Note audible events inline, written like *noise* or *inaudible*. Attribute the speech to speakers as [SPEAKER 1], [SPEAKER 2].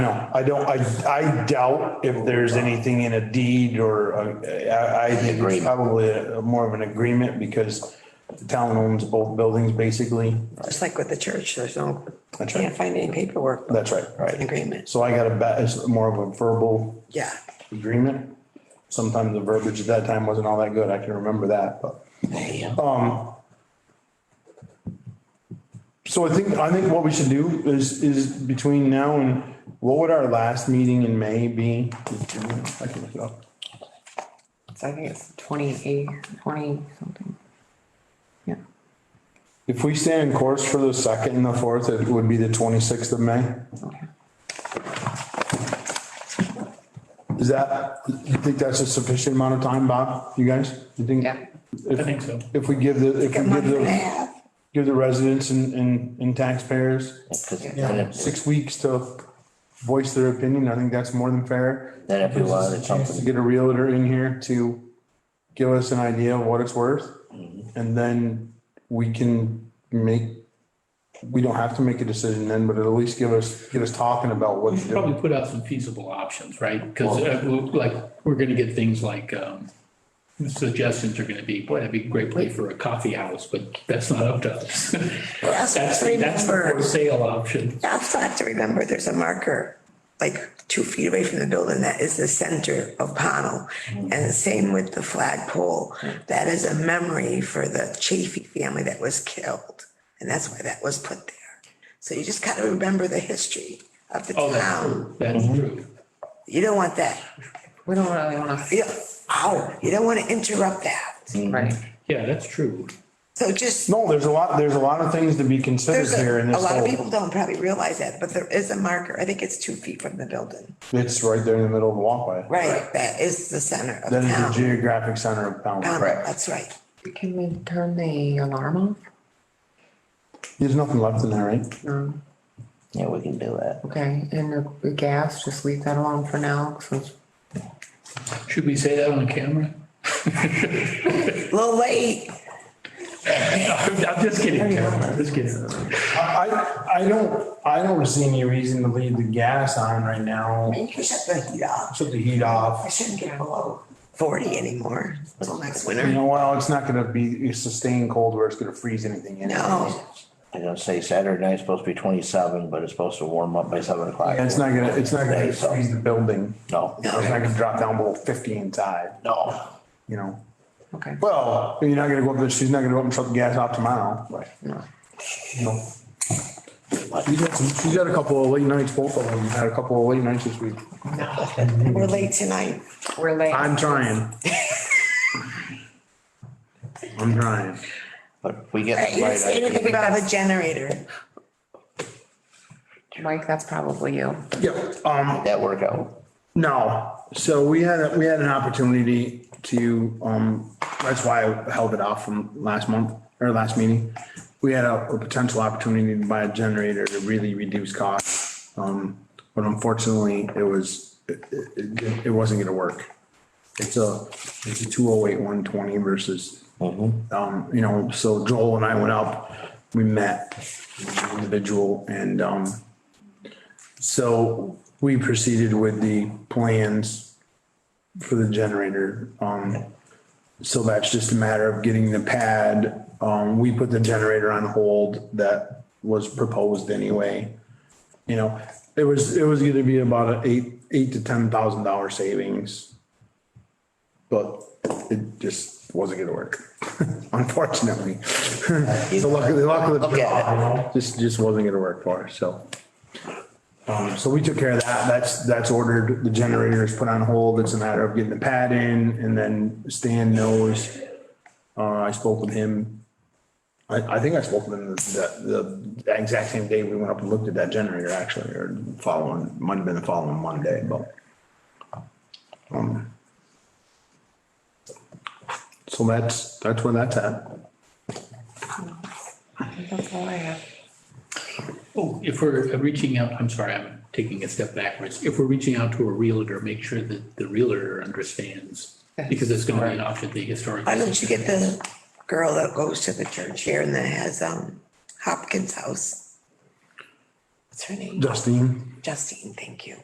[SPEAKER 1] No, I don't, I, I doubt if there's anything in a deed or, a- I, I think it's
[SPEAKER 2] Agreement.
[SPEAKER 1] probably a- a more of an agreement because the town owns both buildings, basically.
[SPEAKER 3] Just like with the church, there's no, I
[SPEAKER 1] That's right.
[SPEAKER 3] can't find any paperwork.
[SPEAKER 1] That's right.
[SPEAKER 3] An Agreement,
[SPEAKER 1] So I got a, ba- it's more of a verbal
[SPEAKER 3] yeah.
[SPEAKER 1] agreement. Sometimes the verbiage at that time wasn't all that good. I can remember that, but. So I think, I think what we should do is, is between now and, what would our last meeting in May be? I can look it up.
[SPEAKER 4] So I think it's twenty-eight, twenty something. Yeah,
[SPEAKER 1] If we stay in course for the second and the fourth, it would be the twenty-sixth of May.
[SPEAKER 4] okay.
[SPEAKER 1] Is that, you think that's a sufficient amount of time, Bob? You guys? You think?
[SPEAKER 4] Yeah.
[SPEAKER 1] I think so. If we give the, if we give the, give the residents and, and, and taxpayers
[SPEAKER 2] Because then if,
[SPEAKER 1] six weeks to voice their opinion, I think that's more than fair.
[SPEAKER 2] then if we wanted
[SPEAKER 1] To
[SPEAKER 2] something,
[SPEAKER 1] get a realtor in here to give us an idea of what it's worth. And then we can make, we don't have to make a decision then, but it'll at least give us, get us talking about what
[SPEAKER 5] We
[SPEAKER 1] to
[SPEAKER 5] should
[SPEAKER 1] do.
[SPEAKER 5] probably put out some feasible options, right? Because like, we're gonna get things like, um, suggestions are gonna be, boy, that'd be a great place for a coffee house, but that's not up to us.
[SPEAKER 3] *laughs* That's
[SPEAKER 5] That's,
[SPEAKER 3] what I
[SPEAKER 5] that's the
[SPEAKER 3] remember.
[SPEAKER 5] for sale option.
[SPEAKER 3] You also have to remember, there's a marker like two feet away from the building that is the center of Pownell.
[SPEAKER 5] Mm-hmm.
[SPEAKER 3] And the same with the flagpole. That is a memory for the Chafee family that was killed. And that's why that was put there. So you just gotta remember the history of the
[SPEAKER 5] Oh, that's
[SPEAKER 3] town.
[SPEAKER 5] true, that's true.
[SPEAKER 3] You don't want that.
[SPEAKER 4] We don't really wanna,
[SPEAKER 3] You, ow, you don't wanna interrupt that.
[SPEAKER 4] right,
[SPEAKER 5] Yeah, that's true.
[SPEAKER 3] So just.
[SPEAKER 1] No, there's a lot, there's a lot of things to be considered
[SPEAKER 3] There's
[SPEAKER 1] here in
[SPEAKER 3] a, a
[SPEAKER 1] this
[SPEAKER 3] lot of
[SPEAKER 1] whole,
[SPEAKER 3] people don't probably realize that, but there is a marker. I think it's two feet from the building.
[SPEAKER 1] it's right there in the middle of the walkway.
[SPEAKER 3] Right, that is the center of
[SPEAKER 1] That is the
[SPEAKER 3] town.
[SPEAKER 1] geographic center of
[SPEAKER 3] Um,
[SPEAKER 1] Pownell.
[SPEAKER 3] That's right.
[SPEAKER 4] can we turn the alarm off?
[SPEAKER 1] There's nothing left in there, right?
[SPEAKER 4] No,
[SPEAKER 2] yeah, we can do that.
[SPEAKER 4] okay, and the- the gas, just leave that alone for now, since
[SPEAKER 5] Should we say that on camera?
[SPEAKER 3] A little late.
[SPEAKER 5] I'm *laughs* I'm just kidding, Karen, I'm just kidding.
[SPEAKER 1] I, I- I don't, I don't see any reason to leave the gas on right now.
[SPEAKER 3] You can shut the heat off.
[SPEAKER 1] Shut the heat
[SPEAKER 3] I
[SPEAKER 1] off.
[SPEAKER 3] shouldn't get below forty anymore until next
[SPEAKER 1] You
[SPEAKER 3] winter.
[SPEAKER 1] know, well, it's not gonna be sustained cold where it's gonna freeze anything in.
[SPEAKER 3] No,
[SPEAKER 2] I'm gonna say Saturday night's supposed to be twenty-seven, but it's supposed to warm up by seven o'clock.
[SPEAKER 1] And it's not gonna, it's not gonna
[SPEAKER 2] Right, so-
[SPEAKER 1] freeze the building.
[SPEAKER 2] No,
[SPEAKER 1] It's not gonna drop down below fifty inside,
[SPEAKER 2] no.
[SPEAKER 1] you know?
[SPEAKER 4] Okay.
[SPEAKER 1] Well, you're not gonna go up there, she's not gonna go up and shut the gas off tomorrow. Right.
[SPEAKER 4] No.
[SPEAKER 1] No. She's had some- she's had a couple of late nights, both of them had a couple of late nights this week.
[SPEAKER 3] we're late tonight.
[SPEAKER 4] we're late.
[SPEAKER 1] I'm trying. I'm trying.
[SPEAKER 2] But if we get
[SPEAKER 3] Right,
[SPEAKER 2] the
[SPEAKER 3] You didn't
[SPEAKER 2] right
[SPEAKER 3] say anything
[SPEAKER 2] idea,
[SPEAKER 3] about a generator.
[SPEAKER 4] Mike, that's probably you.
[SPEAKER 1] Yeah, um,
[SPEAKER 2] that work out.
[SPEAKER 1] No, so we had, a- we had an opportunity to, um, that's why I held it off from last month or last meeting. We had a, a potential opportunity to buy a generator to really reduce costs. Um, but unfortunately, it was, it, it, it wasn't gonna work. It's a, it's a two oh eight, one twenty versus,
[SPEAKER 2] Mm-hmm.
[SPEAKER 1] um, you know, so Joel and I went up, we met individual and, um, so we proceeded with the plans for the generator. Um, so that's just a matter of getting the pad. Um, we put the generator on hold that was proposed anyway. You know, it was, it was gonna be about a eight, eight to ten thousand dollar savings. But it just wasn't gonna work, *laughs* unfortunately. *laughs* So luckily, luckily,
[SPEAKER 2] Look at
[SPEAKER 1] just, just wasn't gonna work for us, so. Um, so we took care of that. That's, that's ordered. The generator is put on hold. It's a matter of getting the pad in and then Stan knows. Uh, I spoke with him. I, I think I spoke with him the, the exact same day we went up and looked at that generator actually, or following, might have been the following Monday, but. um, So that's, that's where that's at.
[SPEAKER 4] That's all I have.
[SPEAKER 5] Oh, if we're reaching out, I'm sorry, I'm taking a step backwards. If we're reaching out to a realtor, make sure that the realtor understands, because it's gonna be an option the historic.
[SPEAKER 3] Why don't you get the girl that goes to the church here and that has, um, Hopkins House? What's her name?
[SPEAKER 1] Justine?
[SPEAKER 3] Justine, thank you.